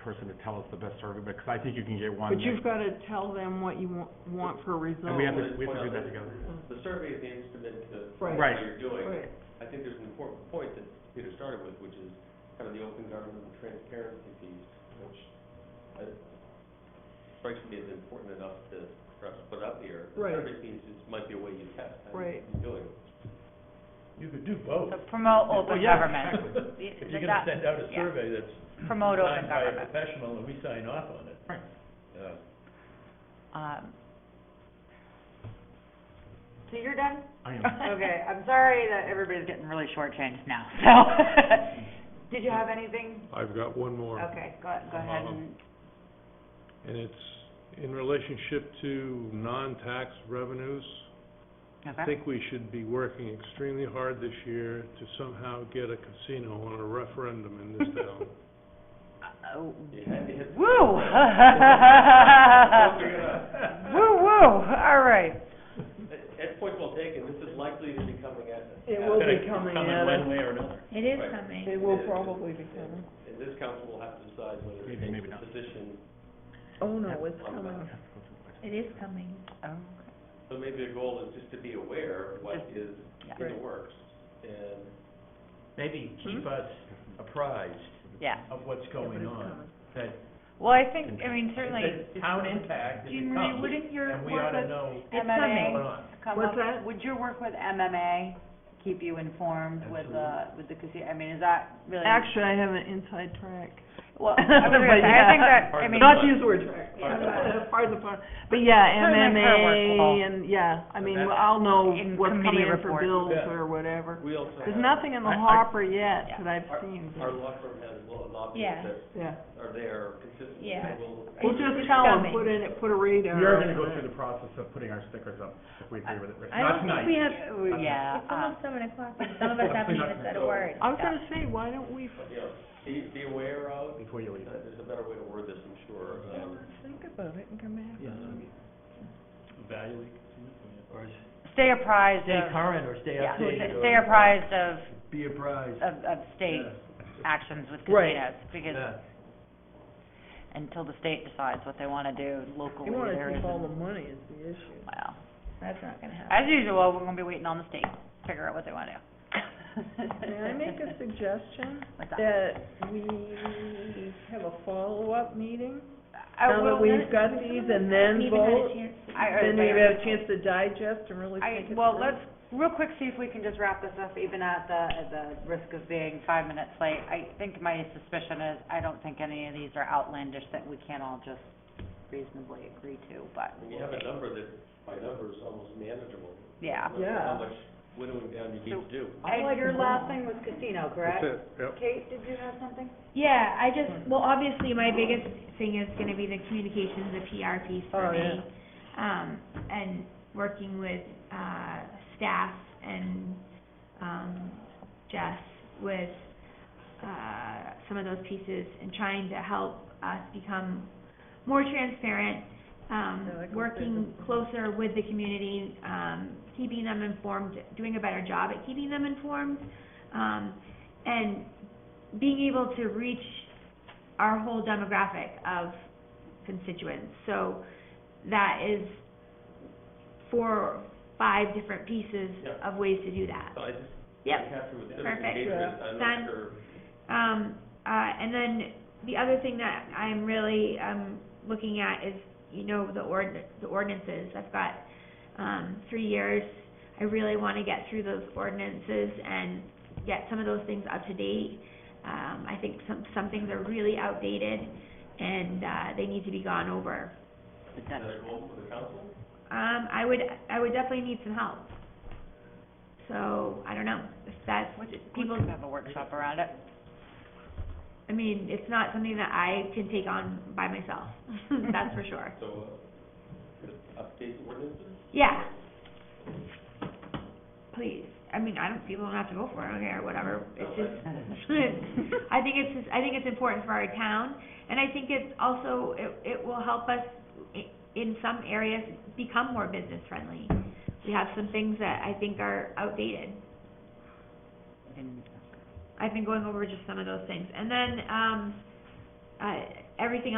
person to tell us the best survey, because I think you can get one. But that- you've gotta tell them what you want, want for result. And we have to, Well, we have to do that that's- together. The survey is the instrument to, Right. what you're doing. Right. I think there's an important point that Peter started with, which is kind of the open government and transparency piece, which uh, strikes me as important enough to perhaps put up here. Right. The survey piece is, might be a way you test how Right. you're doing. You could do both. So promote Well, open yeah, government. exactly. Y- If you're gonna that- send out a yeah. survey that's Promote open signed by a government. professional and we sign off on it. Right. Uh, Um, So you're done? I am. Okay, I'm sorry that everybody's getting really shortchanged now, so. Did you have anything? I've got one more. Okay, go, go ahead and, And it's in relationship to non-tax revenues. I okay, think we should be working extremely hard this year to somehow get a casino on a referendum in this town. Uh, oh, Woo! Woo! Woo, woo, all right. Ed's point well taken, this is likely to be coming at us. It will kinda be coming at Coming one us. way or another. It is Right. coming. It will probably be coming. And this council will have to decide whether it Maybe, takes maybe a not. position. Oh, no, it's on that. coming. It is coming. Oh, So maybe the goal is just to be aware of what is Yeah. in the works. And Maybe keep us apprised Yeah, of what's going on, that, well, I think, I mean, certainly, that town impact, if Jean it Marie, comes, wouldn't your and we ought work to with, know it's what's going coming. on. come What's up- that? would your work with MMA keep you informed with the, with the casino, I mean, is that really? Actually, I have an inside track. well, I But was gonna say, I think yeah. that, I mean, Not to use the word track, Pardon the pardon the pun, pun. but yeah, Certainly for a workable- MMA and, yeah, I mean, That's- I'll know In what's coming committee in for report. bills Yeah. or whatever. we also have. There's nothing in I- the I- hopper yet Yeah. that I've Our- seen, Our law firm has law- lobbyists Yeah. that yeah. are there consistently. Yeah. We'll- We'll It's just just tell them, coming. put in, put a radar. We are gonna on go it. through the process of putting our stickers up if we agree with it. I don't think we have, ooh, yeah, uh, it's almost seven o'clock, and some of us haven't even said a word. I was gonna say, why don't we, But, you know, be, be aware of, Before you uh, leave. there's a better way to word this, I'm sure. um, think about it and come back? um, Evaluate, or is- stay apprised stay of, current or stay yeah, updated. stay- or stay apprised of, Be apprised. of, of state Yeah. actions with Right. casinos, because Yeah. until the state decides what they wanna do locally, They wanna there keep all isn't, the money is the issue. wow. That's not gonna happen. As usual, we're gonna be waiting on the state, to figure out what they wanna do. May I make a uh, suggestion What's that? that we have a follow-up meeting? I Now that will- we've got these and then vote, We haven't had a chance. I- I- then we have a chance to digest and really I, think it well, through. let's, Real quick, see if we can just wrap this up, even at the, at the risk of being five minutes late, I think my suspicion is, I don't think any of these are outlandish that we can't all just reasonably agree to, but And you have a number that, by number, is almost manageable. Yeah. No matter How Yeah. much winnowing down you need to do. I And like your them all. last thing was casino, correct? That's it, yep. Kate, did you have something? Yeah, Hmm. I just, well, obviously, my biggest thing is gonna be the communications, the PR piece for Oh, me. Um, and working with, uh, staff and, um, Jess with, uh, some of those pieces and trying to help us become more transparent, um, Yeah, like I working said. closer with the community, um, keeping them informed, doing a better job at keeping them informed, um, and being able to reach our whole demographic of constituents. So that is four, or five different pieces Yeah. of ways to do that. So I just, Yep. I'm happy with civic Perfect. engagement, I'm not Done. sure. Um, uh, and then the other thing that I'm really, um, looking at is, you know, the ord- the ordinances. I've got, um, three years. I really wanna get through those ordinances and get some of those things up to date. Um, I think some, some things are really outdated and, uh, they need to be gone over. Is that a goal for the council? Um, I would, I would definitely need some help. So, I don't know, if that's, people, people have a workshop around it. I mean, it's not something that I can take on by myself, that's for sure. So, uh, just update the ordinances? Yeah. Please, I mean, I don't, people don't have to go for it, I don't care, whatever, it's No, just, I think it's, just- I think it's important for our town, and I think it's also, it, it will help us i- in some areas become more business friendly. We have some things that I think are outdated. And I've been going over just some of those things. And then, um, uh, everything